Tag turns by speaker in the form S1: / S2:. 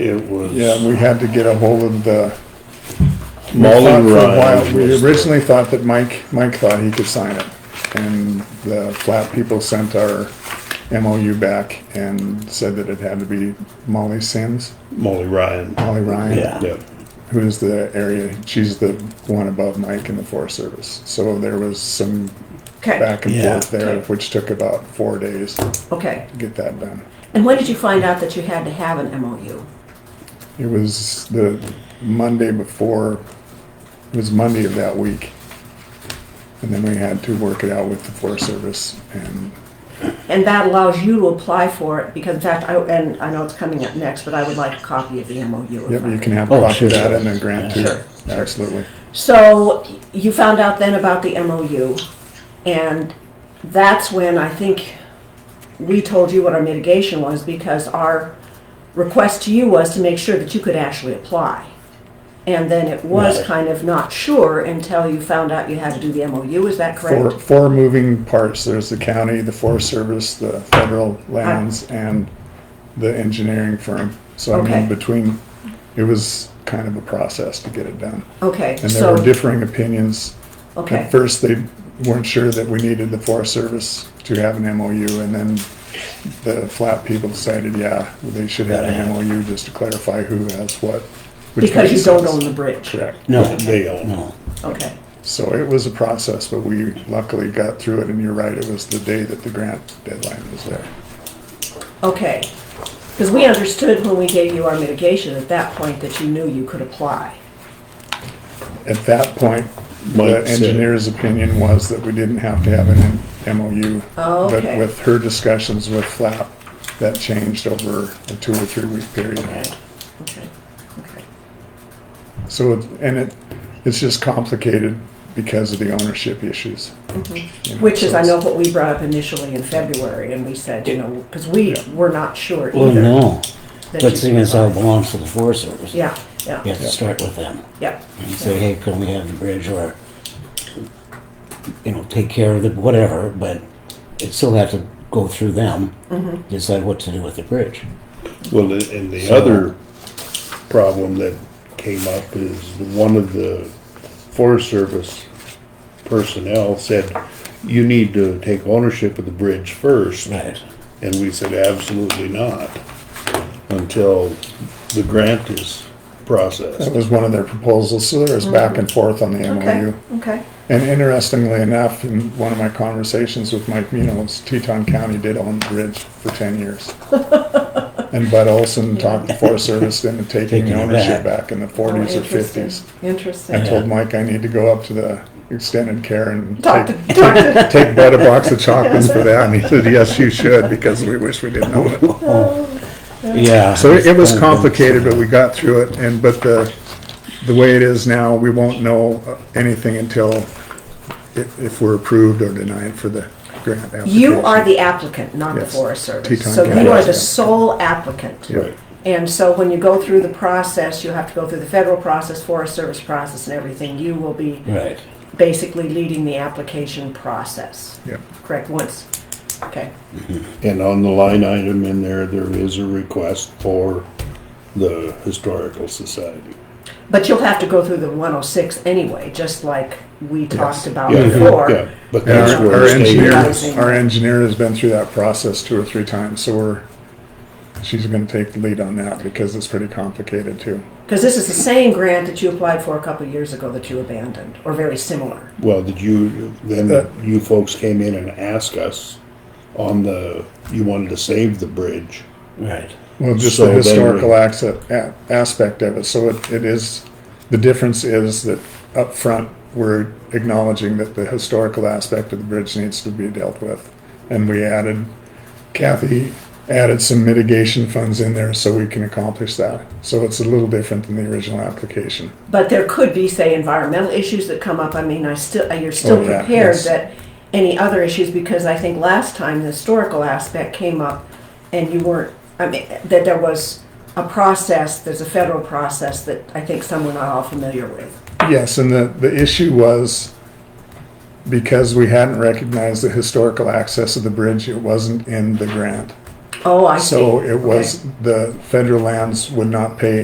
S1: It was.
S2: Yeah, we had to get a hold of the. we
S1: Mullen
S2: thought for a
S1: Ryan
S2: while-
S1: was
S2: We
S1: the-
S2: originally thought that Mike, Mike thought he could sign it. And the flat people sent our MOU back and said that it had to be Molly Sims,
S1: Molly Ryan.
S2: Molly Ryan.
S3: Yeah.
S1: Yep.
S2: Who's the area, she's the one above Mike in the Forest Service. So there was some
S4: Okay,
S2: back and
S3: Yeah.
S2: forth there, which took about four days to
S4: okay.
S2: get that done.
S4: And when did you find out that you had to have an MOU?
S2: It was the Monday before, it was Monday of that week. And then we had to work it out with the Forest Service and
S4: And that allows you to apply for it, because in fact, I, and I know it's coming up next, but I would like a copy of the MOU. if
S2: yep,
S4: I
S2: you
S4: could.
S2: can have
S3: Oh,
S2: a copy
S3: sure.
S2: of that and then grant too.
S3: Sure,
S2: Absolutely.
S4: So you found out then about the MOU, and that's when I think we told you what our mitigation was because our request to you was to make sure that you could actually apply. And then it was
S3: Right.
S4: kind of not sure until you found out you had to do the MOU, is that
S2: Four,
S4: correct?
S2: four moving parts. There's the county, the Forest Service, the federal lands and the engineering firm. So I
S4: Okay.
S2: mean, between, it was kind of a process to get it done.
S4: Okay,
S2: And there
S4: so,
S2: were differing opinions
S4: okay.
S2: At first, they weren't sure that we needed the Forest Service to have an MOU, and then the flat people decided, yeah, they should have an MOU just to clarify who has what. which
S4: Because you
S2: makes
S4: don't
S2: sense.
S4: own the bridge.
S2: Correct.
S3: No,
S1: They own.
S3: no.
S4: Okay,
S2: So it was a process, but we luckily got through it, and you're right, it was the day that the grant deadline was there.
S4: okay. Because we understood when we gave you our mitigation at that point that you knew you could apply.
S2: At that point, the
S1: Mike said-
S2: engineer's opinion was that we didn't have to have an MOU.
S4: Oh, okay.
S2: But with her discussions with flap, that changed over a two or three week period.
S4: Okay, okay, okay.
S2: So, it- and it, it's just complicated because of the ownership issues. You know,
S4: Mm-hmm. Which is,
S2: so
S4: I
S2: it's-
S4: know what we brought up initially in February, and we said, you know, because we were not sure either.
S3: Well, no.
S4: that
S3: But
S4: you
S3: seeing
S4: could
S3: as how it
S4: apply.
S3: belongs to the Forest Service, you
S4: Yeah, yeah,
S3: have to start with them.
S4: yeah,
S3: And say, hey, can we have the bridge or, you know, take care of the, whatever, but it still have to go through them, decide what to do with the bridge.
S1: Well, and and the other problem that came up is one of the Forest Service personnel said, you need to take ownership of the bridge first.
S3: Right.
S1: And we said, absolutely not, until the grant is
S2: That
S1: processed.
S2: was one of their proposals, so there was back and forth on the
S4: Mm-hmm. okay,
S2: MOU.
S4: okay,
S2: And interestingly enough, in one of my conversations with Mike Munoz, Teton County did own the bridge for ten years. And Bud Olson talked the Forest Service into taking
S3: Taking it
S2: ownership
S3: back.
S2: back in the
S4: Oh,
S2: forties or
S4: interesting,
S2: fifties. I
S3: Uh-huh.
S4: Interesting.
S2: told Mike I need to go up to the extended care and
S4: Talk
S2: take,
S4: to, talk to,
S2: take Bud a box of chocolates for that, and he said, yes, you should, because we wish we didn't own it.
S3: Yeah.
S2: So it was
S3: Kinda
S2: complicated, but we got through it, and, but the, the way it is now, we won't know anything until if, if we're approved or denied for the grant application.
S4: you are the applicant, not the
S2: Yes.
S4: Forest
S2: Teton
S4: Service. So
S2: County
S4: you are
S2: is the
S4: the sole applicant.
S2: Yeah.
S4: And so when you go through the process, you have to go through the federal process, Forest Service process and everything. You will be
S3: Right.
S4: basically leading the application process.
S2: Yeah.
S4: Correct, once, okay.
S1: And on the line item in there, there is a request for the Historical Society.
S4: But you'll have to go through the 106 anyway, just like we talked about
S1: Yeah,
S4: before.
S1: yeah, But
S2: And
S1: that's
S2: Our our
S1: where it
S2: engineer,
S1: stays.
S4: Housing.
S2: our engineer has been through that process two or three times, so we're, she's gonna take the lead on that, because it's pretty complicated too.
S4: Because this is the same grant that you applied for a couple of years ago that you abandoned, or very similar.
S1: Well, did you,
S2: Uh,
S1: then you folks came in and asked us on the, you wanted to save the bridge.
S3: Right.
S2: Well, just
S1: So
S2: the
S1: then we-
S2: historical acce- a- aspect of it, so it, it is, the difference is that up front we're acknowledging that the historical aspect of the bridge needs to be dealt with. And we added, Kathy added some mitigation funds in there so we can accomplish that. So it's a little different than the original application.
S4: But there could be, say, environmental issues that come up. I mean, I still, uh, you're
S2: Oh,
S4: still
S2: yeah,
S4: prepared
S2: yes.
S4: that any other issues, because I think last time the historical aspect came up and you weren't, I mean, that there was a process, there's a federal process that I think some we're not all familiar with.
S2: Yes, and the, the issue was because we hadn't recognized the historical access of the bridge, it wasn't in the grant.
S4: Oh, I see.
S2: So it
S4: Okay.
S2: was, the federal lands would not pay